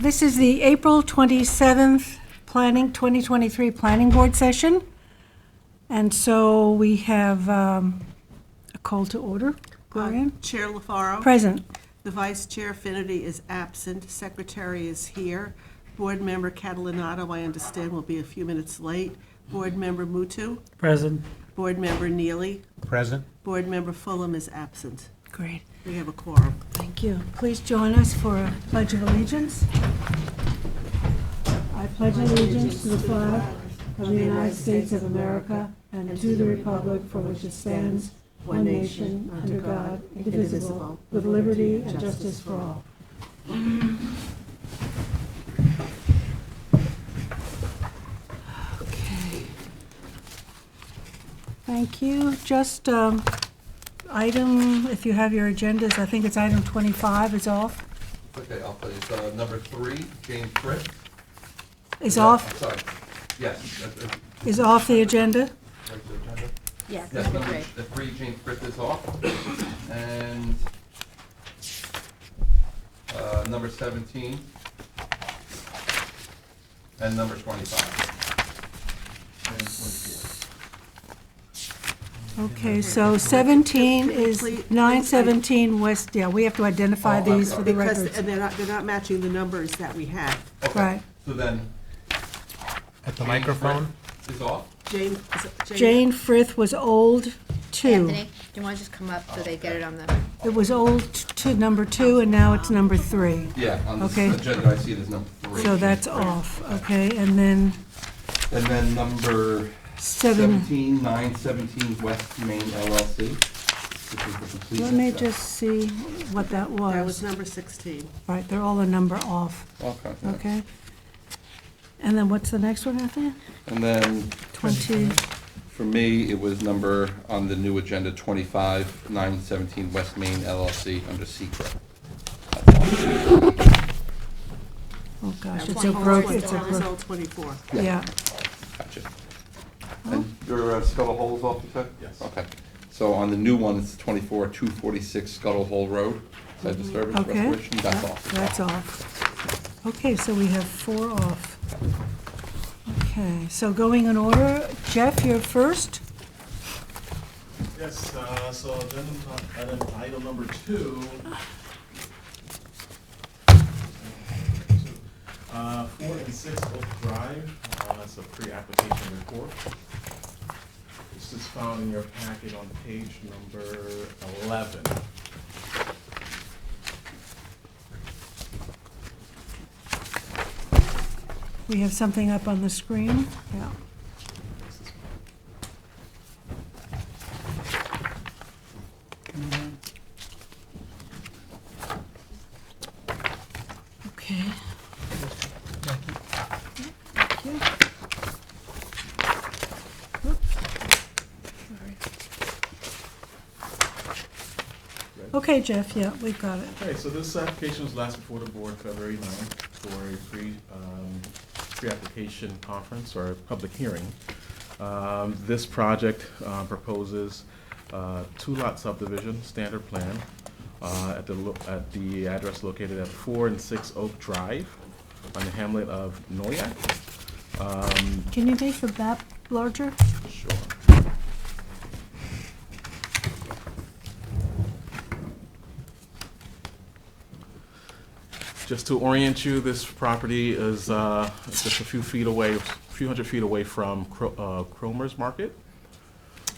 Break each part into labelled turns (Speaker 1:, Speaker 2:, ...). Speaker 1: This is the April 27th Planning, 2023 Planning Board Session. And so we have um, a call to order. Gloria?
Speaker 2: Uh, Chair LaFaro.
Speaker 1: Present.
Speaker 2: The Vice Chair Finity is absent. Secretary is here. Board Member Catalinato, I understand, will be a few minutes late. Board Member Mutu.
Speaker 3: Present.
Speaker 2: Board Member Neely.
Speaker 4: Present.
Speaker 2: Board Member Fulham is absent.
Speaker 1: Great.
Speaker 2: We have a quorum.
Speaker 1: Thank you. Please join us for a pledge of allegiance. I pledge allegiance to the flag of the United States of America and to the republic for which it stands, one nation, under God, indivisible, with liberty and justice for all. Okay. Thank you. Just um, item, if you have your agendas, I think it's item 25 is off,
Speaker 5: Okay, I'll play, it's uh, number three, James Britt.
Speaker 1: is
Speaker 5: No,
Speaker 1: off,
Speaker 5: I'm Sorry, yes, that- that's
Speaker 1: is off the agenda.
Speaker 5: right to the agenda.
Speaker 6: Yes,
Speaker 5: Yes,
Speaker 6: number
Speaker 5: number,
Speaker 6: three.
Speaker 5: the three, James Britt is off. And uh, number 17 and number 25.
Speaker 1: Okay, so 17 is,
Speaker 2: Please-
Speaker 1: 917 West, yeah, we have to identify
Speaker 5: Oh, I'm
Speaker 1: these for the
Speaker 5: sorry.
Speaker 2: Because,
Speaker 1: records.
Speaker 2: and they're not, they're not matching the numbers that we had.
Speaker 5: Okay,
Speaker 1: Right.
Speaker 5: So then.
Speaker 4: At the
Speaker 5: James
Speaker 4: microphone?
Speaker 5: Britt Is off.
Speaker 2: Jane, is it
Speaker 1: Jane Frith was old two.
Speaker 6: Anthony, do you want to just come up so they get it on the,
Speaker 1: It was old to number two, and now it's number three.
Speaker 5: Yeah, on
Speaker 1: Okay.
Speaker 5: this agenda, I see it as number three.
Speaker 1: So that's off, okay? And then
Speaker 5: And then number
Speaker 1: seven,
Speaker 5: 17, 917 West Main LLC, which is the complete.
Speaker 1: let me
Speaker 5: set.
Speaker 1: just see what that
Speaker 2: That was
Speaker 1: was.
Speaker 2: number 16.
Speaker 1: Right, they're all a number off,
Speaker 5: Okay. yeah.
Speaker 1: okay? And then what's the next one, Anthony?
Speaker 5: And then
Speaker 1: 20,
Speaker 5: for me, it was number on the new agenda, 25, 917 West Main LLC under secret.
Speaker 1: oh gosh, it's a
Speaker 2: That was
Speaker 1: broken,
Speaker 2: all-
Speaker 1: it's a
Speaker 2: That was
Speaker 1: broken,
Speaker 2: all 24.
Speaker 1: yeah.
Speaker 5: Gotcha. And your uh, Scuttle Hole is off, you said? Yes. Okay. So on the new one, it's 24, 246 Scuttle Hole Road, site disturbance
Speaker 1: Okay.
Speaker 5: restoration, that's
Speaker 1: Yep,
Speaker 5: off.
Speaker 1: That's off. Okay, so we have four off. Okay, so going in order, Jeff, you're first.
Speaker 7: Yes, uh, so then, item, item number two. Uh, four and six Oak Drive, uh, that's a pre-application report. This is found in your packet on page number eleven.
Speaker 1: We have something up on the screen. Yeah.
Speaker 7: This is-
Speaker 1: Okay. Thank you. Oops. Okay, Jeff, yeah, we've got it.
Speaker 7: Okay, so this application was last before the board February 9th for a pre, um, pre-application conference or a public hearing. Um, This project uh, proposes uh, two-lot subdivision, standard plan, uh, at the, lo- at the address located at 4 and 6 Oak Drive on the hamlet of Noyak. Um,
Speaker 1: Can you make the map larger?
Speaker 7: Sure. Just to orient you, this property is uh, just a few feet away, a few hundred feet away from Cro- uh, Cromer's Market.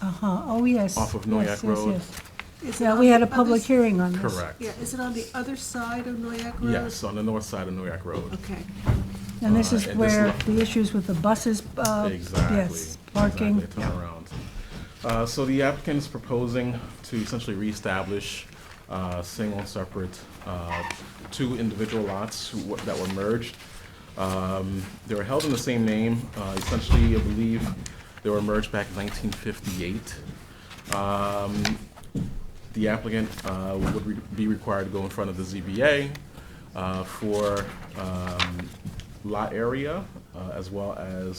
Speaker 1: Uh-huh, oh, yes.
Speaker 7: Off of
Speaker 1: Yes,
Speaker 7: Noyak
Speaker 1: yes,
Speaker 7: Road.
Speaker 1: yes.
Speaker 2: Is it
Speaker 1: Yeah,
Speaker 2: on
Speaker 1: we
Speaker 2: the
Speaker 1: had a
Speaker 2: other
Speaker 1: public
Speaker 2: s-
Speaker 1: hearing on this.
Speaker 7: Correct.
Speaker 2: Yeah, is it on the other side of Noyak Road?
Speaker 7: Yes, on the north side of Noyak Road.
Speaker 2: Okay.
Speaker 1: And this
Speaker 7: Uh,
Speaker 1: is
Speaker 7: and this
Speaker 1: where
Speaker 7: lot-
Speaker 1: the issues with the buses, uh,
Speaker 7: Exactly.
Speaker 1: yes, parking.
Speaker 7: Exactly, turnaround. Uh, So the applicant is proposing to essentially reestablish uh, single and separate uh, two individual lots who were- that were merged. Um, They were held in the same name. Uh, Essentially, I believe they were merged back in 1958. Um, the applicant uh, would re- be required to go in front of the ZBA uh, for um, lot area uh, as well as